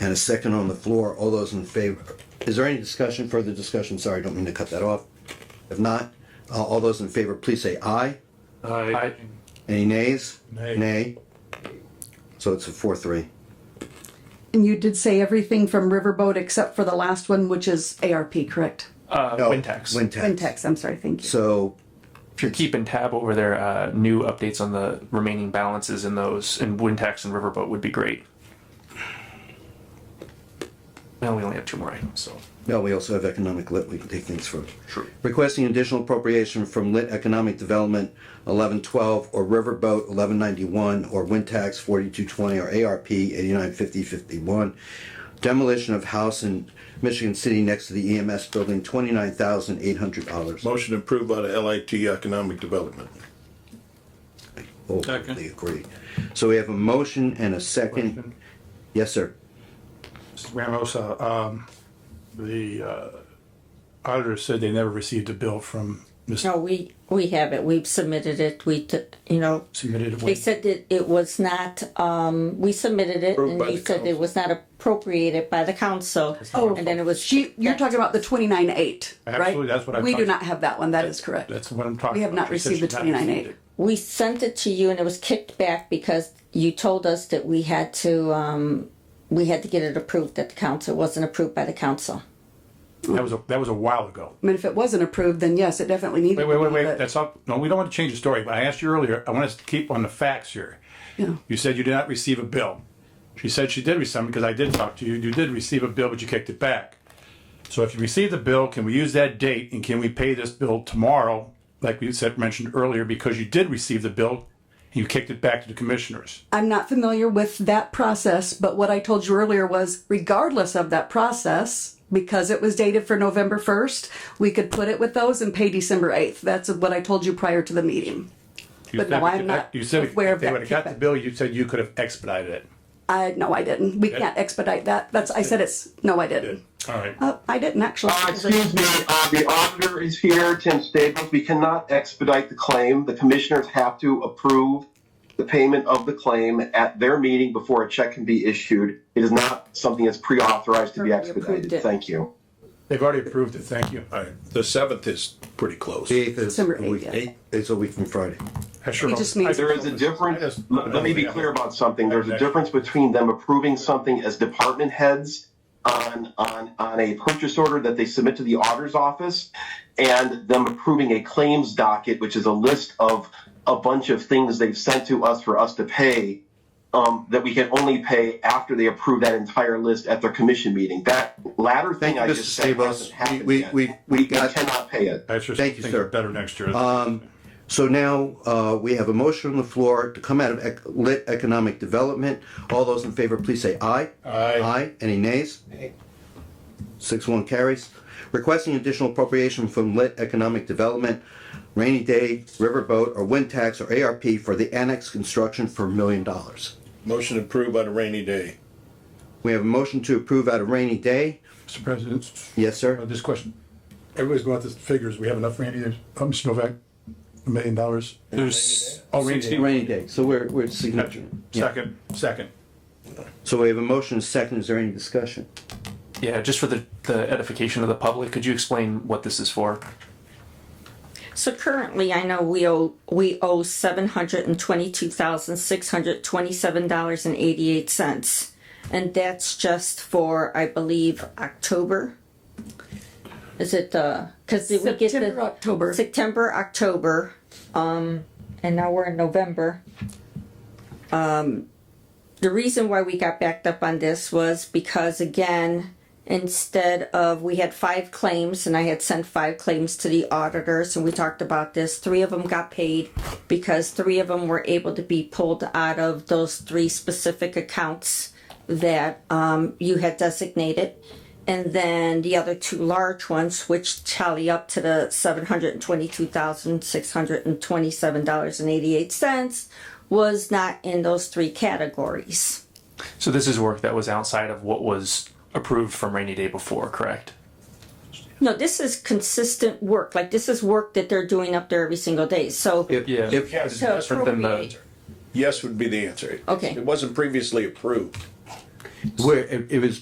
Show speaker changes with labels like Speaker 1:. Speaker 1: and a second on the floor. All those in favor, is there any discussion, further discussion? Sorry, don't mean to cut that off. If not, uh, all those in favor, please say aye.
Speaker 2: Aye.
Speaker 1: Any nays?
Speaker 2: Nay.
Speaker 1: Nay. So it's a four, three.
Speaker 3: And you did say everything from Riverboat except for the last one, which is ARP, correct?
Speaker 2: Uh,
Speaker 1: No,
Speaker 2: Wintex.
Speaker 1: Wintex.
Speaker 3: Quintex, I'm sorry, thank you.
Speaker 1: So,
Speaker 2: if you're keeping tab over their uh, new updates on the remaining balances in those, and Wintex and Riverboat would be great. Now we only have two more items, so.
Speaker 1: no, we also have economic lit, we can take things from.
Speaker 2: True.
Speaker 1: Requesting additional appropriation from Lit Economic Development eleven twelve or Riverboat eleven ninety-one or Wind Tax forty-two twenty or ARP eighty-nine fifty fifty-one. Demolition of house in Michigan City next to the EMS building, twenty-nine thousand eight hundred dollars.
Speaker 4: Motion approved by the LIT Economic Development.
Speaker 1: They Oh, agree. So we have a motion and a second. Yes, sir.
Speaker 5: Mr. Ramos, uh, um, the uh, auditor said they never received a bill from Ms.
Speaker 6: No, we, we have it, we've submitted it, we, t- you know,
Speaker 5: submitted.
Speaker 6: they said that it was not, um, we submitted it
Speaker 4: Approved
Speaker 6: and
Speaker 4: by
Speaker 6: they
Speaker 4: the
Speaker 6: said it
Speaker 4: council.
Speaker 6: was not appropriated by the council.
Speaker 3: Oh,
Speaker 6: And then it was.
Speaker 3: She, you're talking about the twenty-nine eight, right?
Speaker 5: Absolutely, that's what I
Speaker 3: We do
Speaker 5: thought.
Speaker 3: not have that one, that is correct.
Speaker 5: That's what I'm talking about.
Speaker 3: We have not
Speaker 5: She said
Speaker 3: received the
Speaker 5: she had not
Speaker 3: 29.8.
Speaker 5: received it.
Speaker 6: We sent it to you and it was kicked back because you told us that we had to, um, we had to get it approved at the council, it wasn't approved by the council.
Speaker 5: That was, a- that was a while ago.
Speaker 3: I mean, if it wasn't approved, then yes, it definitely needed.
Speaker 5: Wait, wait, wait,
Speaker 3: but-
Speaker 5: wait, that's up, no, we don't want to change the story, but I asked you earlier, I want us to keep on the facts here.
Speaker 3: Yeah.
Speaker 5: You said you did not receive a bill. She said she did receive some, because I did talk to you, you did receive a bill, but you kicked it back. So if you received the bill, can we use that date, and can we pay this bill tomorrow, like we said, mentioned earlier, because you did receive the bill, and you kicked it back to the commissioners?
Speaker 3: I'm not familiar with that process, but what I told you earlier was regardless of that process, because it was dated for November first, we could put it with those and pay December eighth. That's what I told you prior to the meeting.
Speaker 5: You
Speaker 3: But
Speaker 5: said
Speaker 3: no,
Speaker 5: we
Speaker 3: I'm
Speaker 5: could-
Speaker 3: not
Speaker 5: You said if
Speaker 3: aware of
Speaker 5: they
Speaker 3: that
Speaker 5: would have got the
Speaker 3: kickback.
Speaker 5: bill, you said you could have expedited it.
Speaker 3: I, no, I didn't. We can't expedite that. That's, I said it's, no, I
Speaker 5: Good.
Speaker 3: didn't.
Speaker 5: All right.
Speaker 3: Uh, I didn't actually.
Speaker 7: Uh, Excuse me, uh, the auditor is here, Tim Staples. We cannot expedite the claim. The commissioners have to approve the payment of the claim at their meeting before a check can be issued. It is not something that's pre-authorized to be
Speaker 6: Already approved
Speaker 7: expedited.
Speaker 6: it.
Speaker 7: Thank you.
Speaker 5: They've already approved it, thank you.
Speaker 4: All right, the seventh is pretty close.
Speaker 1: The eighth is, a
Speaker 3: December eighth,
Speaker 1: week-
Speaker 3: yeah.
Speaker 1: eight- it's a week from Friday.
Speaker 5: I sure
Speaker 3: He
Speaker 5: hope-
Speaker 3: just needs-
Speaker 5: I
Speaker 7: There is a
Speaker 5: hope- I
Speaker 7: difference,
Speaker 5: just-
Speaker 7: let let me be clear about something. There's a difference between them approving something as department heads on, on, on a purchase order that they submit to the auditor's office and them approving a claims docket, which is a list of a bunch of things they've sent to us for us to pay, um, that we can only pay after they approve that entire list at their commission meeting. That latter
Speaker 1: Thank
Speaker 7: thing
Speaker 1: you,
Speaker 7: I
Speaker 1: Mr.
Speaker 7: just said
Speaker 1: Sabos.
Speaker 7: hasn't happened
Speaker 1: We,
Speaker 7: yet.
Speaker 1: we,
Speaker 7: We
Speaker 1: we
Speaker 7: we
Speaker 1: got.
Speaker 7: cannot pay it.
Speaker 5: I just
Speaker 1: Thank you,
Speaker 5: think
Speaker 1: sir. Uh,
Speaker 5: they're better next year.
Speaker 1: So now, uh, we have a motion on the floor to come out of ec- lit economic development. All those in favor, please say aye.
Speaker 5: Aye.
Speaker 1: Aye. Any nays? Six one carries. Requesting additional appropriation from lit economic development, rainy day, riverboat, or wind tax, or ARP for the annex construction for a million dollars.
Speaker 4: Motion approved by the rainy day.
Speaker 1: We have a motion to approve out of rainy day.
Speaker 5: Mr. President,
Speaker 1: Yes,
Speaker 5: uh,
Speaker 1: sir?
Speaker 5: this question, everybody's going out the figures, we have enough for any, uh, Mr. Novak, a million dollars?
Speaker 2: There's
Speaker 5: Oh, rainy day.
Speaker 1: Rainy day, so we're, we're significant. Yeah.
Speaker 5: Second, second.
Speaker 1: So we have a motion, second, is there any discussion?
Speaker 2: Yeah, just for the, the edification of the public, could you explain what this is for?
Speaker 6: So currently, I know we owe, we owe seven hundred and twenty-two thousand, six hundred twenty-seven dollars and eighty-eight cents. And that's just for, I believe, October. Is it, uh, cause did we get the?
Speaker 3: September, October.
Speaker 6: September, October, um, and now we're in November. Um, the reason why we got backed up on this was because again, instead of, we had five claims and I had sent five claims to the auditors and we talked about this. Three of them got paid because three of them were able to be pulled out of those three specific accounts that, um, you had designated. And then the other two large ones, which tally up to the seven hundred and twenty-two thousand, six hundred and twenty-seven dollars and eighty-eight cents, was not in those three categories.
Speaker 2: So this is work that was outside of what was approved from rainy day before, correct?
Speaker 6: No, this is consistent work, like this is work that they're doing up there every single day, so.
Speaker 2: Yeah.
Speaker 1: If-
Speaker 4: Yes,
Speaker 6: to
Speaker 2: different than the-
Speaker 6: appropriate.
Speaker 4: yes would be the answer.
Speaker 6: Okay.
Speaker 4: It wasn't previously approved.
Speaker 1: where it, it was